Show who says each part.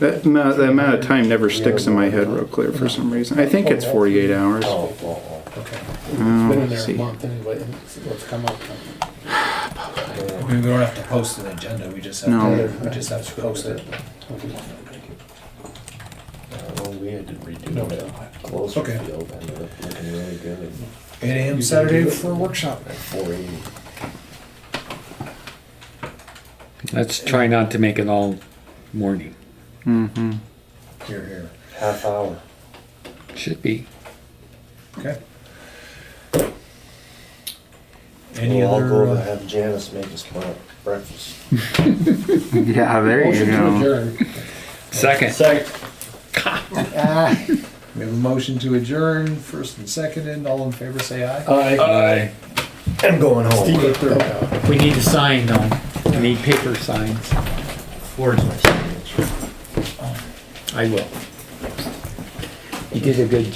Speaker 1: That, ma- the amount of time never sticks in my head real clear for some reason. I think it's 48 hours.
Speaker 2: Oh, oh,
Speaker 3: Okay. It's been
Speaker 1: Um,
Speaker 3: in
Speaker 1: let's
Speaker 3: there a
Speaker 1: see.
Speaker 3: month anyway, and it's- what's come up.
Speaker 2: oh.
Speaker 4: We we don't have to post an agenda, we just have
Speaker 1: No.
Speaker 4: to, we just have to post it.
Speaker 2: oh. Well, we had to
Speaker 3: No,
Speaker 2: redo
Speaker 3: no.
Speaker 2: that closer
Speaker 4: Okay.
Speaker 2: field, ended up looking really good
Speaker 4: Eight AM
Speaker 3: You
Speaker 4: Saturday
Speaker 3: can do it.
Speaker 4: for a workshop.
Speaker 2: at four eighty.
Speaker 5: Let's try not to make it all morning.
Speaker 1: Mm-hmm.
Speaker 4: Here, here.
Speaker 2: Half hour.
Speaker 5: Should be.
Speaker 4: Okay. Any
Speaker 2: Well, I'll go
Speaker 4: other,
Speaker 2: over and
Speaker 4: uh,
Speaker 2: have Janice make us bre- breakfast.
Speaker 1: Yeah, there you
Speaker 3: Motion to
Speaker 1: go.
Speaker 3: adjourn.
Speaker 5: Second.
Speaker 2: Second.
Speaker 3: Ah,
Speaker 4: we have a motion to adjourn, first and seconded, all in favor, say aye.
Speaker 3: aye.
Speaker 5: Aye.
Speaker 2: I'm going home.
Speaker 5: We need a sign though. We need paper signs.
Speaker 2: Where's my signature?
Speaker 5: I will. You did a good job.